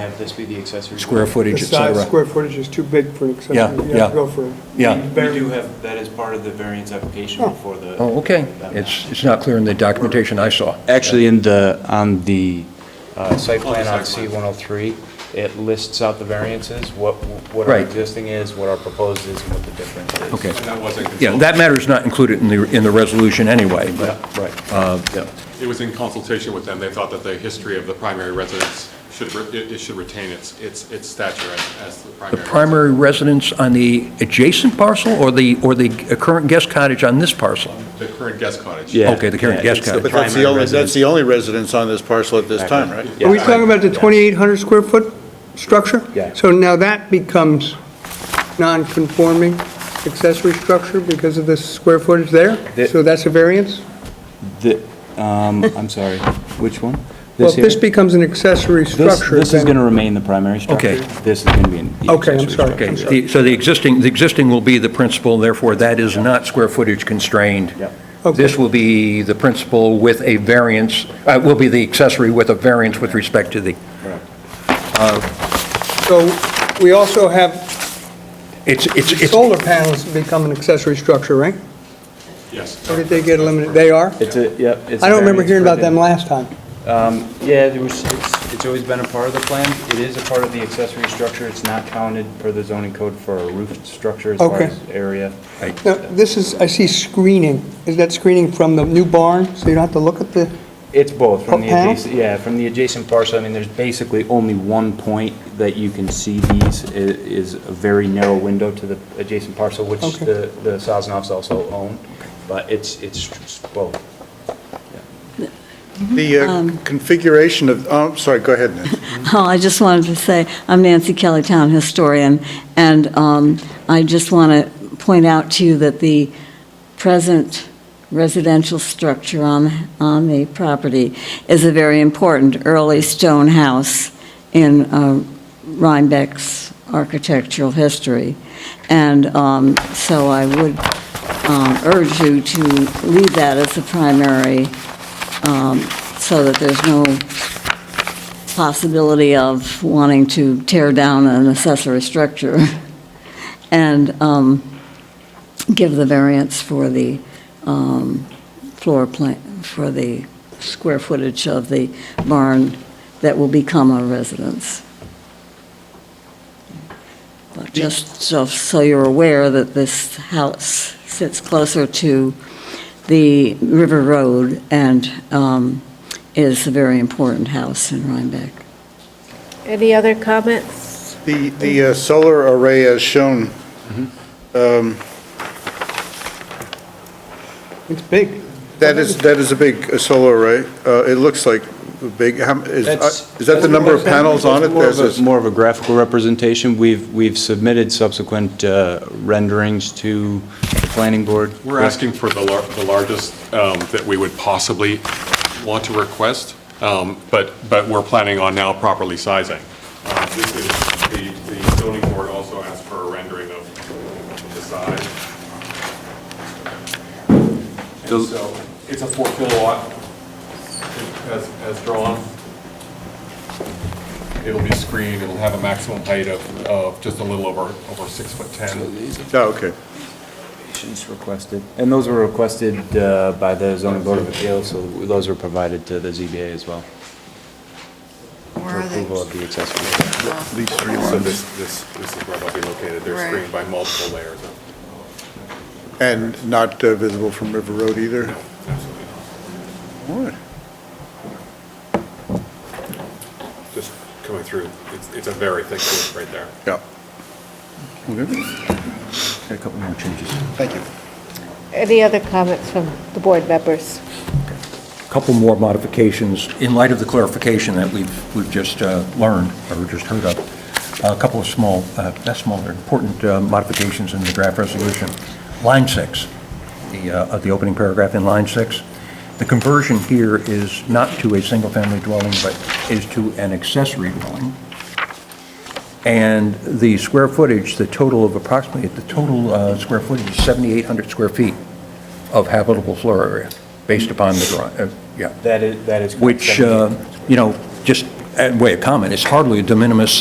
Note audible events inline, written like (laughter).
have this be the accessory. square building. footage, The et size, cetera. square footage is too big for an accessory. Yeah, You have to yeah. go for a Yeah. We do very- have, that as part of the variance application Oh. for the. Oh, okay. that It's, it's not clear in the documentation I saw. Actually, in the, on the uh, site plan on Cul-de-sac C-103, it lists out the variances, what, what our Right. existing is, what our proposed is, and what the difference is. Okay. And that wasn't Yeah, that matter is not included in the, in the resolution anyway, but, Right. uh, yeah. It was in consultation with them. They thought that the history of the primary residence should, re- it it should retain its, its its stature as- as the the primary. primary residence on the adjacent parcel or the, or the current guest cottage on this parcel? residence. The current guest cottage. Yeah. Okay, the current Yeah, guest it's the cottage. But that's the primary only, that's residence. the only residence on this parcel at this time, right? Are we talking about the 2,800 square foot structure? Yeah. So now that becomes non-conforming accessory structure because of the square footage there? The- So that's a variance? The, um, I'm sorry, which one? Well, if here? this becomes an accessory This, structure, this is then- going to remain the primary structure. Okay. This is going to be an. the Okay, I'm accessory sorry. structure. Okay, the- so the existing, the existing will be the principal, therefore that is not square footage constrained. Yep. Okay. This will be the principal with a variance, uh, will be the accessory with a variance with respect to the, So we also have it's, it's, it's, solar panels become an accessory structure, right? Yes. Or did they get eliminated? They are? It's a, yep. it's a I don't remember variance hearing about for the- them last time. Yeah, there was, it's, it's always been a part of the plan. It is a part of the accessory structure. It's not counted per the zoning code for a roof structure as far Okay. as area. Now, this is, I see screening. Is that screening from the new barn, so you don't have to look at the, It's both, from the Okay. adjacent, yeah, from the adjacent parcel, I mean, there's basically only one point that you can see these, i- is a very narrow window to the adjacent parcel, which Okay. the, the Sosnovs also own, but it's, it's both. The uh, configuration of, oh, I'm sorry, go ahead, Nancy. Oh, I just wanted to say, I'm Nancy Kelly, town historian, and um, I just want to point out to you that the present residential structure on, on the property is a very important early stone house in uh, Rhinebeck's architectural history. And um, so I would um, urge you to leave that as the primary, um, so that there's no possibility of wanting to tear down an accessory structure (laughs) and um, give the variance for the um, floor plan, for the square footage of the barn that will become a residence. But just so, so you're aware that this house sits closer to the River Road and um, is a very important house in Rhinebeck. Any other comments? (laughs) The, the uh, solar array as shown, Mm-hmm. um, it's big. that is, that is a big uh, solar array. Uh, It looks like a big, how- is uh, is that the number of panels on it? That's more of a- There's a- More of a graphical representation. We've, we've submitted subsequent uh, renderings to the planning board. We're asking for the lar- the largest um, that we would possibly want to request, um, but, but we're planning on now properly sizing. Uh, This is, the the zoning board also asked for a rendering of the size. And so it's a four kilowatt as, as drawn. It'll be screened, it'll have a maximum height of, of just a little over, over six foot 10. Oh, okay. Conditions requested. And those were requested uh, by the zoning board of appeals, so those were provided to the ZBA as well. Where for are they? Approval of the accessory. Oh, These three So this, this, this is where they'll be located. They're Right. screened by multiple layers of. And not uh, visible from River Road either? Absolutely not. All right. Just coming through, it's, it's a very thick wood right there. Yeah. Okay. Got a couple more changes. Thank you. Any other comments from the board members? couple more modifications in light of the clarification that we've, we've just uh, learned or just heard of. A couple of small, uh, not small, they're important uh, modifications in the draft resolution. Line six, the, uh, of the opening paragraph in line six. The conversion here is not to a single-family dwelling, but is to an accessory dwelling. And the square footage, the total of approximately, the total uh, square footage is 7,800 square feet of habitable floor area, based upon the uh, drawing, yeah. That is, that is. correct. Which, uh, you know, just uh, way of comment, it's hardly a de minimis